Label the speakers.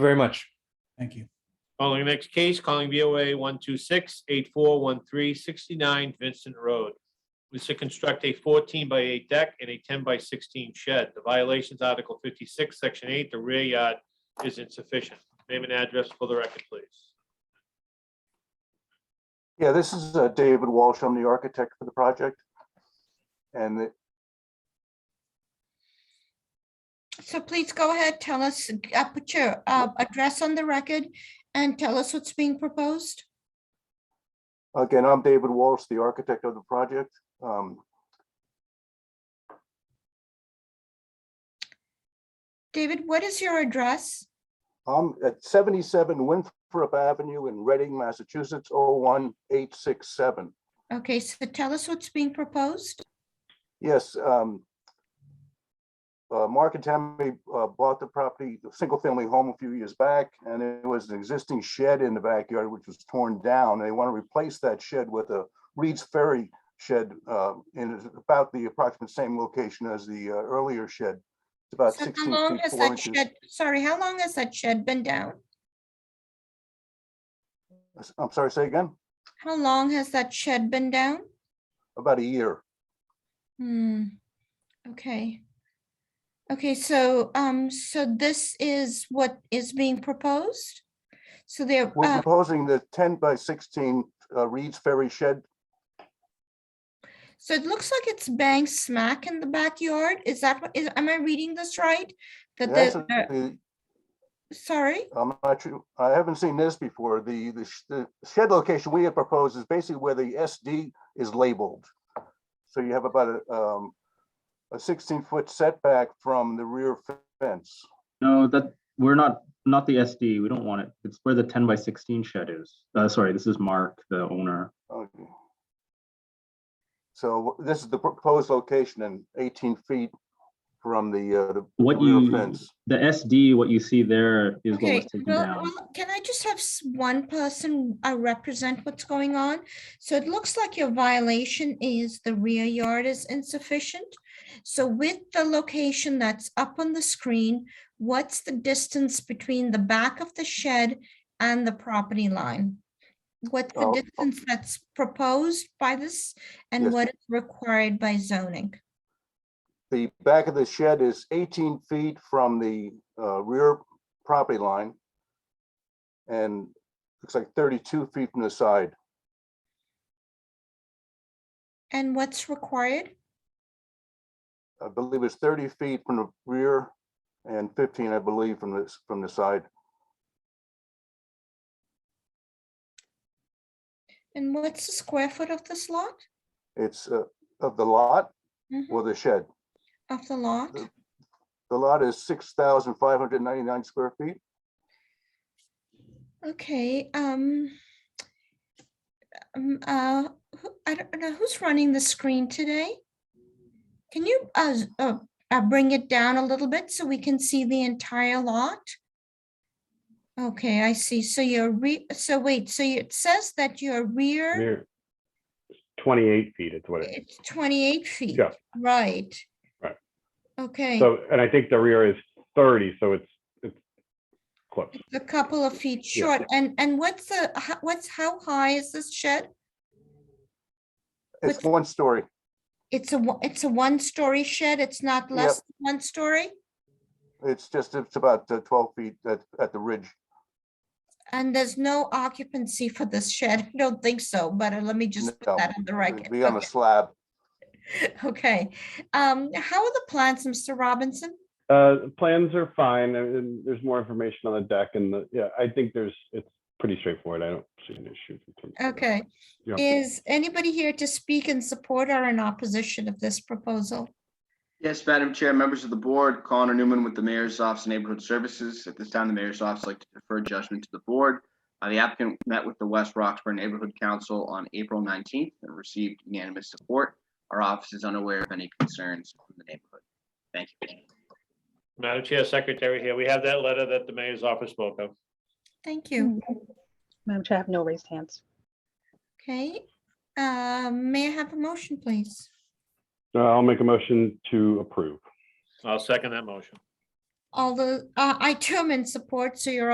Speaker 1: very much.
Speaker 2: Thank you.
Speaker 3: Calling the next case, calling BOA one two six eight four one three sixty-nine Vincent Road. Was to construct a fourteen by eight deck and a ten by sixteen shed. The violations, Article fifty-six, Section eight, the rear yard is insufficient. Name and address for the record, please.
Speaker 4: Yeah, this is uh, David Walsh. I'm the architect for the project. And the-
Speaker 5: So please go ahead, tell us, uh, put your uh, address on the record and tell us what's being proposed.
Speaker 4: uh, again, I'm David Walsh, the architect of the project. Um,
Speaker 5: David, what is your address?
Speaker 4: I'm at 77 Winthrop Avenue in Reading, Massachusetts, 01867.
Speaker 5: Okay, so tell us what's being proposed.
Speaker 4: Yes. um, uh, Mark and Tammy uh, bought the property, the single-family home a few years back, and it was an existing shed in the backyard, which was torn down. They want to replace that shed with a Reed's Ferry shed uh, in about the approximate same location as the uh, earlier shed. It's about
Speaker 5: So
Speaker 4: 16
Speaker 5: how long
Speaker 4: feet,
Speaker 5: has
Speaker 4: 4
Speaker 5: that
Speaker 4: inches.
Speaker 5: shed? Sorry, how long has that shed been down?
Speaker 4: I'm sorry, say again?
Speaker 5: How long has that shed been down?
Speaker 4: About a year.
Speaker 5: Hmm, okay. Okay, so, um, so this is what is being proposed? So there,
Speaker 4: We're
Speaker 5: uh,
Speaker 4: proposing the 10 by 16 uh, Reed's Ferry shed.
Speaker 5: so it looks like it's bang smack in the backyard. Is that what is am I reading this right? That
Speaker 4: That's
Speaker 5: the, uh,
Speaker 4: the-
Speaker 5: sorry,
Speaker 4: I'm not sure, I haven't seen this before. The, the sh- the shed location we have proposed is basically where the SD is labeled. So you have about a, um, a sixteen foot setback from the rear fence.
Speaker 6: No, that, we're not, not the SD, we don't want it, it's where the ten by sixteen shed is, uh, sorry, this is Mark, the owner.
Speaker 4: Okay. So this is the proposed location and eighteen feet from the, uh, the
Speaker 6: What
Speaker 4: rear
Speaker 6: you,
Speaker 4: fence.
Speaker 6: the SD, what you see there is what was
Speaker 5: okay,
Speaker 6: taken
Speaker 5: well,
Speaker 6: down.
Speaker 5: well, can I just have s- one person uh, represent what's going on? So it looks like your violation is the rear yard is insufficient. So with the location that's up on the screen, what's the distance between the back of the shed and the property line? What's the
Speaker 4: Oh,
Speaker 6: uh,
Speaker 4: oh.
Speaker 5: distance that's proposed by this and
Speaker 4: Yes.
Speaker 5: what is required by zoning?
Speaker 4: The back of the shed is eighteen feet from the uh, rear property line. And looks like thirty-two feet from the side.
Speaker 5: And what's required?
Speaker 4: I believe it's thirty feet from the rear and fifteen, I believe, from this, from the side.
Speaker 5: And what's the square foot of this lot?
Speaker 4: It's uh, of the lot
Speaker 5: Mhm.
Speaker 4: or the shed.
Speaker 5: Of the lot?
Speaker 4: The- The lot is six thousand five hundred ninety-nine square feet.
Speaker 5: Okay, um. um, uh, who- I don't know who's running the screen today. Can you, uh, z- uh, uh, bring it down a little bit so we can see the entire lot? Okay, I see. So your re, so wait, so you- it says that your rear,
Speaker 7: Near twenty-eight feet is what it,
Speaker 5: it's twenty-eight feet,
Speaker 7: Yeah.
Speaker 5: right?
Speaker 7: Right.
Speaker 5: Okay,
Speaker 7: so, and I think the rear is thirty, so it's, it's close.
Speaker 5: it's a couple of feet short. And, and what's the, ho- what's, how high is this shed?
Speaker 4: It's
Speaker 5: Which-
Speaker 4: one story.
Speaker 5: It's a, one- it's a one-story shed, it's not
Speaker 4: Yep.
Speaker 5: less than one story,
Speaker 4: It's just, it's about uh, twelve feet at, at the ridge.
Speaker 5: and there's no occupancy for this shed, I don't think so, but uh, let me just
Speaker 4: No,
Speaker 5: put that on
Speaker 4: It'd
Speaker 5: the record.
Speaker 4: Be on a slab.
Speaker 5: Okay, um, how are the plans, Mr. Robinson?
Speaker 7: Uh, plans are fine, and- and there's more information on the deck and the, yeah, I think there's, it's pretty straightforward. I don't see an issue. in terms of that.
Speaker 5: Okay,
Speaker 7: Yeah.
Speaker 5: is anybody here to speak in support or in opposition of this proposal?
Speaker 8: Yes, Madam Chair, members of the board, Connor Newman with the Mayor's Office of Neighborhood Services. At this time, the Mayor's Office would like to defer judgment to the board. Uh, The applicant met with the West Roxbury Neighborhood Council on April 19th and received unanimous support. Our office is unaware of any concerns from the neighborhood. Thank you.
Speaker 3: Madam Chair, Secretary here. We have that letter that the mayor's office spoke of.
Speaker 5: Thank you,
Speaker 9: Madam Chair, I have no raised hands.
Speaker 5: okay, uh, may I have a motion, please?
Speaker 7: Uh, I'll make a motion to approve.
Speaker 3: I'll second that motion.
Speaker 5: All the, uh, I too am in support, so you're